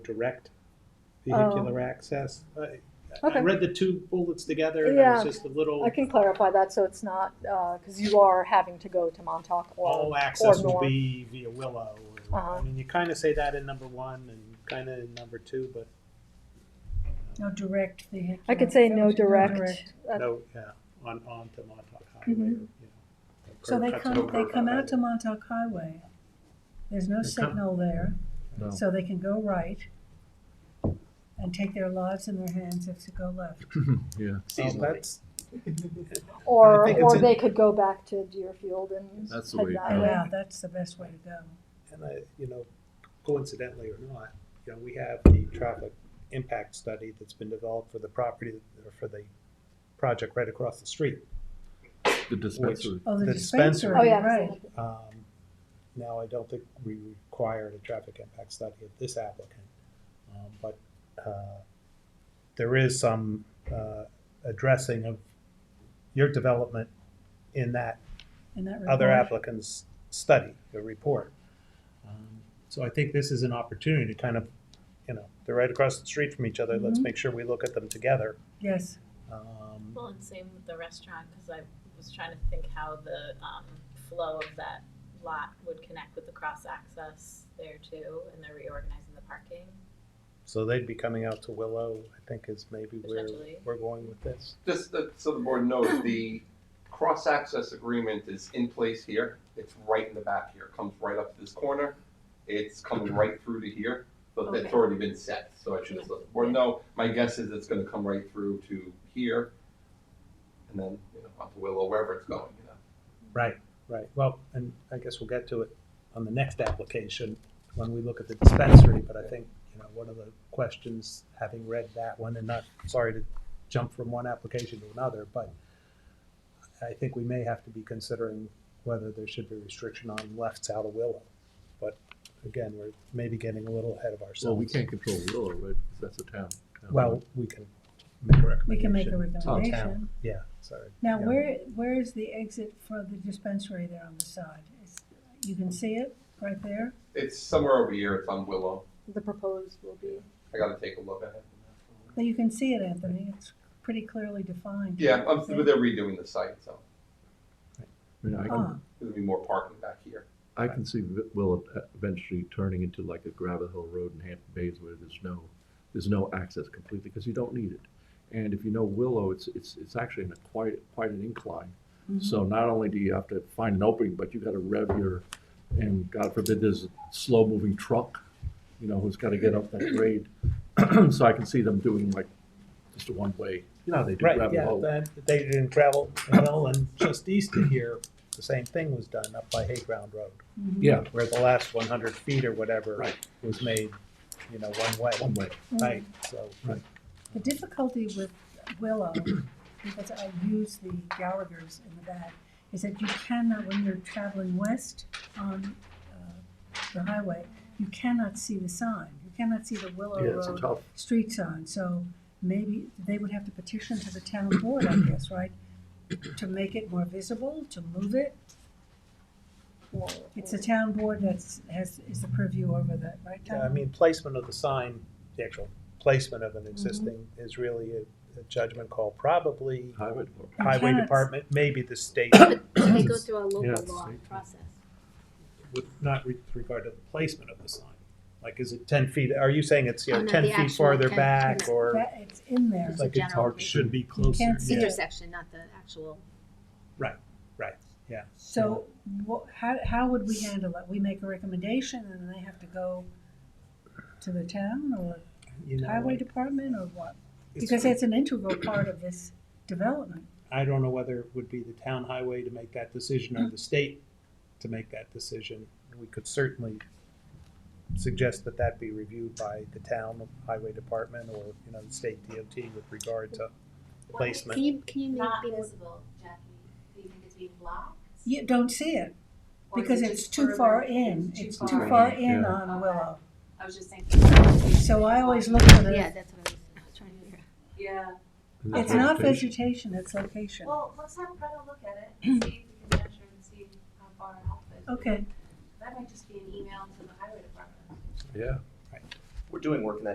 direct vehicular Oh. access. I- I Okay. read the two bullets together, and Yeah. it was just a little, I can clarify that, so it's not, because you are having to go to Montauk all Oh, or, access or will north. be via Willow. or- I Uh-huh. mean, you kind of say that in number one and kind of in number two, but No direct vehicular. I could say no direct. direct. Uh, no, yeah, on, on to Montauk Highway. Mhm. or, you know, Mm-hmm. So curb they cuts come, over they the come highway. out to Montauk Highway. There's no They come- signal there, No. so they can go right and take their lives in their hands if to go left. Yeah, So that's- I Or, think it's or in- they could go back to Deerfield and That's the head way- that Yeah. way. Yeah, that's the best way to go. And I, you know, coincidentally or not, you know, we have the traffic impact study that's been developed for the property, or for the project right across the street. the dispensary. Oh, The the dispensary. dispensary, Oh, yeah. right. absolutely. Um, Now, I don't think we require a traffic impact study of this applicant, um, but uh, there is some uh, addressing of your development in that In that other regard, applicant's study, the report. Um, So I think this is an opportunity to kind of, you know, they're right across the street from each other, let's Mhm. make sure we look at them together. yes. Um, Well, and same with the restaurant, because I was trying to think how the um, flow of that lot would connect with the cross access there too, and they're reorganizing the parking. So they'd be coming out to Willow, I think is maybe where Potentially. we're going with this. Just that, so the board knows, the cross-access agreement is in place here. It's right in the back here, It comes right up to this corner. It's coming right through to here, but that's Okay. already been set, so I should just let the board know. My guess is it's gonna come right through to here, and then, you know, up to Willow, wherever it's going, you know. Right, right. Well, and I guess we'll get to it on the next application when we look at the dispensary, but I think, you know, one of the questions, having read that one, and not, sorry to jump from one application to another, but I think we may have to be considering whether there should be restriction on lefts out of Willow. But again, we're maybe getting a little ahead of ourselves. Well, we can't control Willow, right, because that's a town. town. Well, we can make a recommendation. We can make a to the town. recommendation. Yeah, sorry. Now, Yeah. where, where is the exit for the dispensary there on the side? It's- You can see it right there? It's somewhere over here, it's on Willow. The proposed will be, I gotta take a look at it. But you can see it, Anthony. It's pretty clearly defined. Yeah, I'm, they're redoing the site, so I mean, I Ah, can, there'll be more parking back here. I can see Vi- Willow e- eventually turning into like a gravel hill road in Hampton Bays where there's no, there's no access completely, because you don't need it. And if you know Willow, it's, it's, it's actually in a quite, quite an incline. Mm-hmm. So not only do you have to find an opening, but you gotta rev your, and God forbid, there's a slow-moving truck, you know, who's gotta get up that grade. So I can see them doing like just a one-way, you know, how they do Right, gravel yeah, hill. then they didn't travel well, and just east of here, the same thing was done up by Hayground Road, Mhm. Yeah, where the last one hundred feet or whatever Right. was made, you know, one way. one way. Right, so, The difficulty with Willow, because I use the Gallagher's in the back, is that you cannot, when you're traveling west on uh, the highway, you cannot see the sign. You cannot see the Willow Yeah, it's Road tough. street sign. So maybe they would have to petition to the town board, I guess, right? To make it more visible, to move it. more- It's the town board that's, has, is the purview over that, right, Tom? yeah, I mean, placement of the sign, the actual placement of an existing Mm-hmm. is really a a judgment call, probably Highway department. You highway cannot- department, maybe the state, They go through a Yeah, local it's law like- process. with not with regard to the placement of the sign. Like, is it ten feet, are you saying it's, you Oh, know, no, ten the feet actual farther 10 back, or That, it's in there. like it's general- hard, should be closer? can't see yeah. it. Intersection, not the actual. So what, how, how would we handle it? We make a recommendation and then they have to go to the town or You know, highway like, department or what? it's- Because it's an integral part of this development. I don't know whether it would be the town highway to make that decision Mm-hmm. or the state to make that decision. We could certainly suggest that that be reviewed by the town highway department or, you know, the state DOT with regard to placement. you, can you not visible, Jackie? Do you think it's being blocked? You don't see it Or is because it it's just too far further- in. too It's too far far in? in Yeah. on Willow. I was just thinking. So I always look for Yeah, the, that's what I was trying to figure out. Yeah, Is it it's not vegetation? vegetation, it's location. well, let's have Greta look at it and see if we can measure and see how far off it is. Okay, That might just be an email to the highway department. Yeah, we're doing work in that